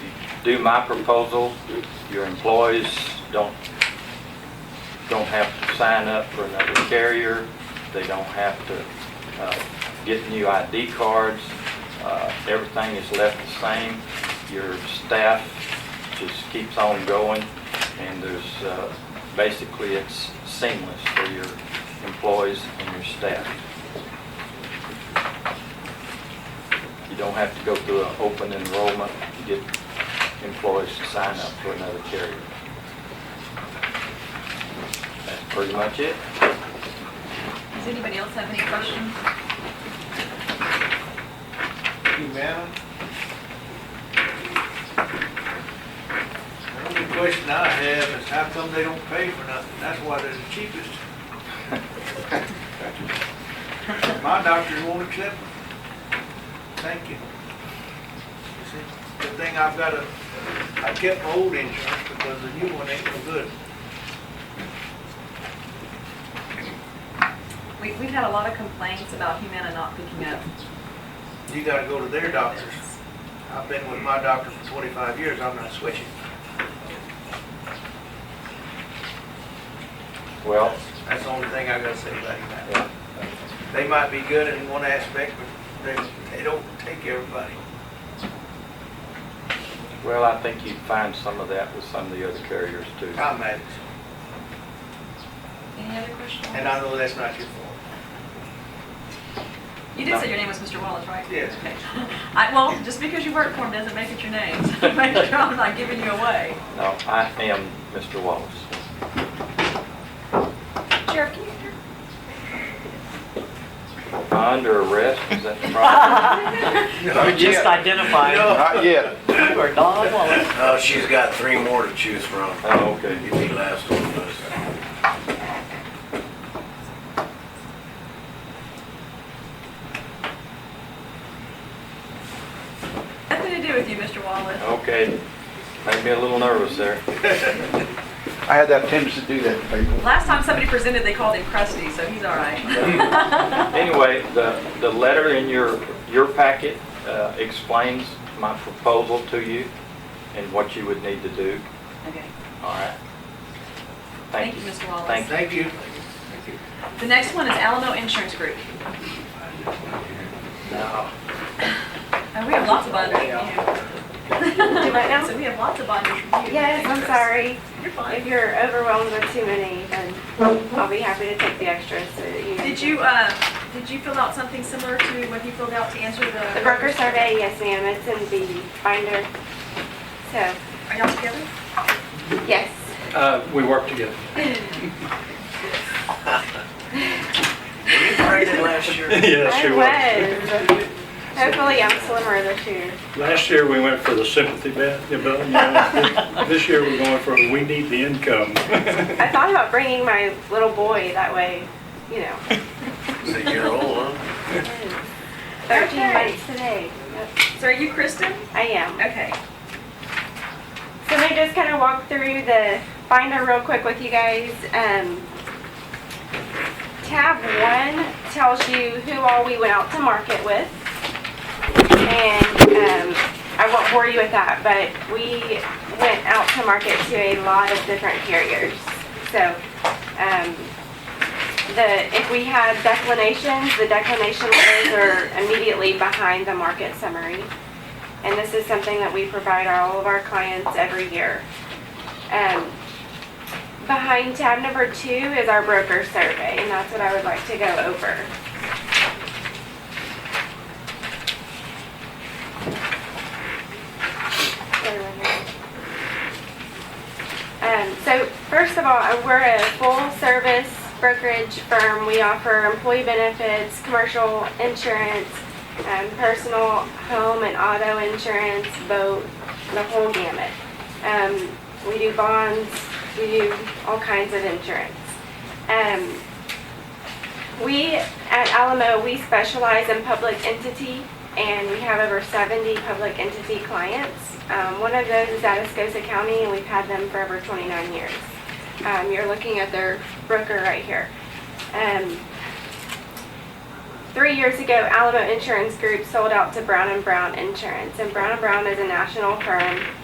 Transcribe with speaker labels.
Speaker 1: do my proposal. Your employees don't, don't have to sign up for another carrier. They don't have to uh, get new ID cards. Uh, Everything is left the same. Your staff just keeps on going, and there's, uh, basically, it's seamless for your employees and your staff. You don't have to go through an open enrollment to get employees to sign up for another carrier. That's pretty much it.
Speaker 2: Does anybody else have any questions?
Speaker 3: You, ma'am? The only question I have is how come they don't pay for nothing? That's why they're the cheapest. My doctors won't accept them. Thank you. You see, Good thing I've got a, I kept my old insurance because the new one ain't no good.
Speaker 2: We, we've had a lot of complaints about Humana not picking up.
Speaker 3: You gotta go to their doctors. I've been with my doctor for twenty-five years, I'm not switching.
Speaker 1: Well,
Speaker 3: That's the only thing I gotta say about it, ma'am.
Speaker 1: yeah,
Speaker 3: They might be good in one aspect, but they, they don't take everybody.
Speaker 1: well, I think you'd find some of that with some of the other carriers too.
Speaker 3: I'm mad,
Speaker 2: Any other questions?
Speaker 3: and I know that's not your fault.
Speaker 2: You did say your name was Mr. Wallace, right?
Speaker 3: Yes.
Speaker 2: Okay. I, well, just because you work for him doesn't make it your name. Make sure I'm not giving you away.
Speaker 1: No, I am Mr. Wallace.
Speaker 2: Sheriff, can you?
Speaker 1: Am I Under arrest, is that the problem?
Speaker 4: We're just identifying
Speaker 3: No.
Speaker 5: Not yet.
Speaker 4: you are Don Wallace.
Speaker 6: Oh, she's got three more to choose from.
Speaker 1: Oh, okay.
Speaker 6: You need last one, please.
Speaker 2: Nothing to do with you, Mr. Wallace.
Speaker 1: Okay, made me a little nervous there.
Speaker 5: I had that tendency to do that to people.
Speaker 2: Last time somebody presented, they called him crusty, so he's all right.
Speaker 1: Anyway, the, the letter in your, your packet uh, explains my proposal to you and what you would need to do,
Speaker 2: Okay.
Speaker 1: all right?
Speaker 2: Thank you, Mr. Wallace.
Speaker 1: Thank you.
Speaker 3: Thank you.
Speaker 2: The next one is Alamo Insurance Group.
Speaker 3: No.
Speaker 2: And Uh, we have lots of bonding from you.
Speaker 7: Do what now?
Speaker 2: So we have lots of bonding from you.
Speaker 7: Yes, I'm sorry.
Speaker 2: You're
Speaker 7: If
Speaker 2: fine.
Speaker 7: you're overwhelmed with too many, then I'll be happy to take the extras so that you.
Speaker 2: Did you, uh, did you fill out something similar to what you filled out to answer the?
Speaker 7: The broker survey, yes ma'am, it's in the binder. So,
Speaker 2: Are y'all together?
Speaker 7: yes.
Speaker 8: Uh, We work together.
Speaker 6: Were you pregnant last year?
Speaker 8: Yes,
Speaker 7: I
Speaker 8: we work.
Speaker 7: was. Hopefully I'm slimmer this year.
Speaker 8: Last year, we went for the sympathy bet, you know, you know, this year, we're going for, we need the income.
Speaker 7: I thought about bringing my little boy that way, you know,
Speaker 6: It's a year old, huh?
Speaker 7: thirteen
Speaker 2: Okay.
Speaker 7: months today.
Speaker 2: So are you Kristen?
Speaker 7: I am.
Speaker 2: Okay.
Speaker 7: So let me just kind of walk through the binder real quick with you guys. Um, tab one tells you who all we went out to market with. And um, I won't bore you with that, but we went out to market to a lot of different carriers. So um, the, if we had declinations, the declination letters are immediately behind the market summary. And this is something that we provide all of our clients every year. Um, Behind tab number two is our broker survey, and that's what I would like to go over. Um, So first of all, uh, we're a full-service brokerage firm. We offer employee benefits, commercial insurance, um, personal, home, and auto insurance, boat, the whole gamut. Um, we do bonds, we do all kinds of insurance. Um, we at Alamo, we specialize in public entity, and we have over 70 public entity clients. Um, one of those is Atascosa County, and we've had them for over 29 years. Um, you're looking at their broker right here. Um, Three years ago, Alamo Insurance Group sold out to Brown and Brown Insurance, and Brown and Brown is a national firm.